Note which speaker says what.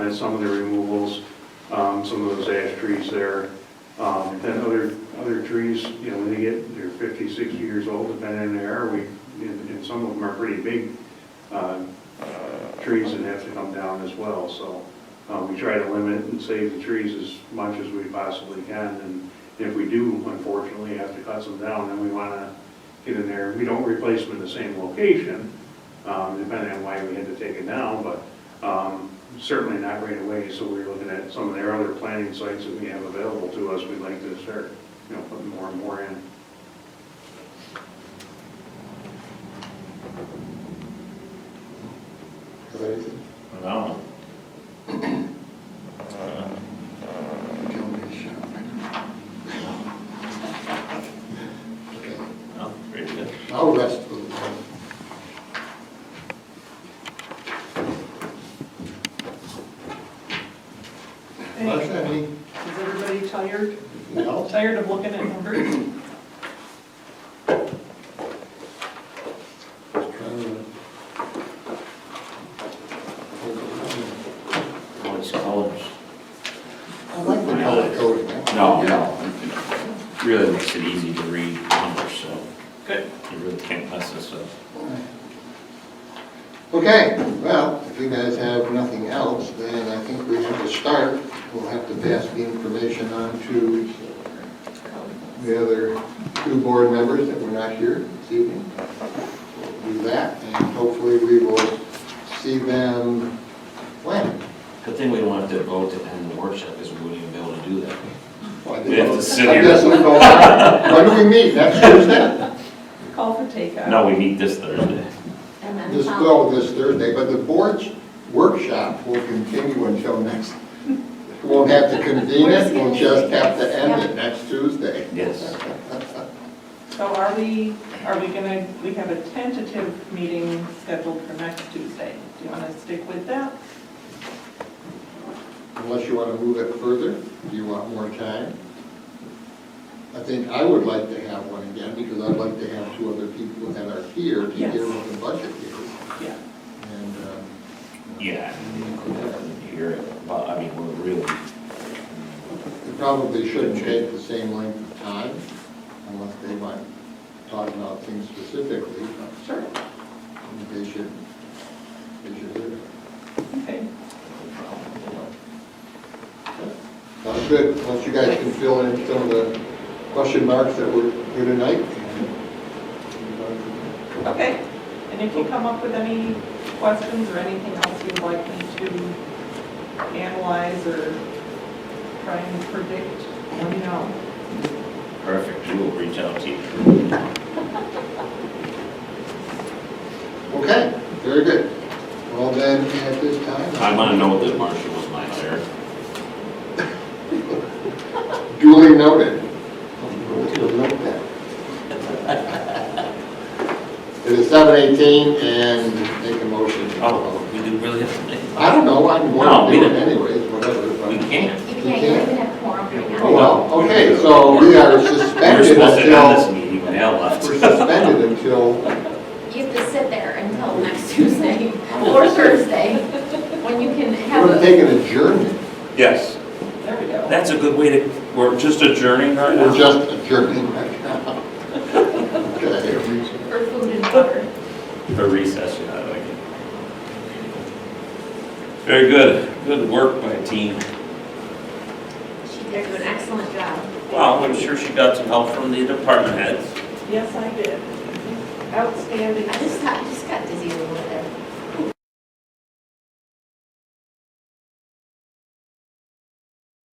Speaker 1: and some of the removals, um, some of those ash trees there. Um, Then other, other trees, you know, when they get, they're 50, 60 years old, depending on the air, we, and and some of them are pretty big uh, trees that have to come down as well, so uh, we try to limit and save the trees as much as we possibly can, and if we do unfortunately have to cut some down, then we want to get in there, we don't replace them in the same location, um, depending on why we had to take it down, but um, certainly not right away, so we're looking at some of their other planting sites that we have available to us, we'd like to start, you know, putting more and more in.
Speaker 2: No. No, pretty good.
Speaker 3: I'll rest for the moment. Unless
Speaker 4: Hey,
Speaker 3: any,
Speaker 4: Is everybody tired?
Speaker 3: no,
Speaker 4: Tired of looking at numbers?
Speaker 3: just trying to.
Speaker 2: What's colors?
Speaker 3: I like the color coding.
Speaker 2: No, no. Really makes it easy to read numbers, so
Speaker 4: Good.
Speaker 2: you really can't mess this up.
Speaker 3: Okay, well, if you guys have nothing else, then I think we have to start. We'll have to pass the information on to the other two board members that were not here this evening. We'll Do that, and hopefully we will see them when?
Speaker 5: Good thing we don't have to vote to end the workshop, because we wouldn't even be able to do that.
Speaker 2: We have to sit
Speaker 3: I
Speaker 2: here.
Speaker 3: guess we'll go on. When do we meet? Next Thursday?
Speaker 4: Call for takeout.
Speaker 2: No, we meet this Thursday.
Speaker 6: And then um,
Speaker 3: This,
Speaker 6: follow-
Speaker 3: no, this Thursday, but the board's workshop will continue until next, we won't have to convene it, we'll just have to end it next Tuesday.
Speaker 2: Yes.
Speaker 4: So are we, are we gonna, we have a tentative meeting scheduled for next Tuesday. Do you wanna stick with that?
Speaker 3: Unless you want to move it further, do you want more time? I think I would like to have one again, because I'd like to have two other people that are here to
Speaker 4: Yes.
Speaker 3: hear what the budget is.
Speaker 4: Yeah.
Speaker 3: And, um,
Speaker 2: Yeah. I mean, we definitely Hear it, but I mean, we're really,
Speaker 3: It probably shouldn't take the same length of time unless they want to talk about things specifically.
Speaker 4: Sure.
Speaker 3: They should, they should do
Speaker 4: Okay.
Speaker 3: it. Sounds good. Once you guys can fill in some of the question marks that were here tonight.
Speaker 4: Okay. And if you come up with any questions or anything else you'd like me to analyze or try and predict, let me know.
Speaker 2: perfect, we will reach out to you.
Speaker 3: Okay, very good. Well, then, at this time.
Speaker 2: I wanna know that Marcia was my hire.
Speaker 3: Duly noted. It is seven eighteen and make a motion. to
Speaker 2: Oh,
Speaker 3: vote.
Speaker 2: we do really have to,
Speaker 3: I don't know, I'm
Speaker 2: No,
Speaker 3: going
Speaker 2: we
Speaker 3: to do it
Speaker 2: didn't.
Speaker 3: anyways, whatever. but-
Speaker 2: we can't.
Speaker 6: You can't, you don't even have quorum right now.
Speaker 3: Oh, well, okay, so we are
Speaker 2: We were
Speaker 3: suspended
Speaker 2: supposed to end this
Speaker 3: until,
Speaker 2: meeting when Al left.
Speaker 3: we're suspended until,
Speaker 6: You have to sit there until next Tuesday or Thursday, when you can have
Speaker 3: we're
Speaker 6: a,
Speaker 3: taking adjournment.
Speaker 2: Yes.
Speaker 4: There we go.
Speaker 2: That's a good way to, we're just adjourning right now.
Speaker 3: We're just adjourning right now. Okay.
Speaker 6: for food and water.
Speaker 2: For recess, yeah, I like it. Very good, good work by team.
Speaker 6: She did do an excellent job.
Speaker 2: Wow, I'm sure she got some help from the department heads.
Speaker 4: Yes, I did. Outstanding.
Speaker 6: I just, I just got dizzy a little bit.